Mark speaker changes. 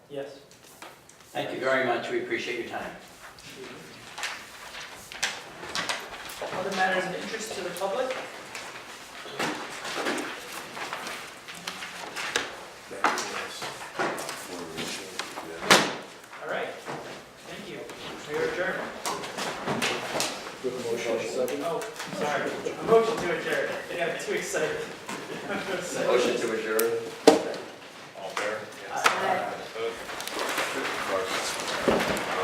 Speaker 1: Yes.
Speaker 2: Thank you very much, we appreciate your time.
Speaker 1: Other matters of interest to the public? All right, thank you. We are adjourned. Oh, sorry, a motion to adjourn. Yeah, I'm too excited.
Speaker 2: Motion to adjourn.
Speaker 1: Uh,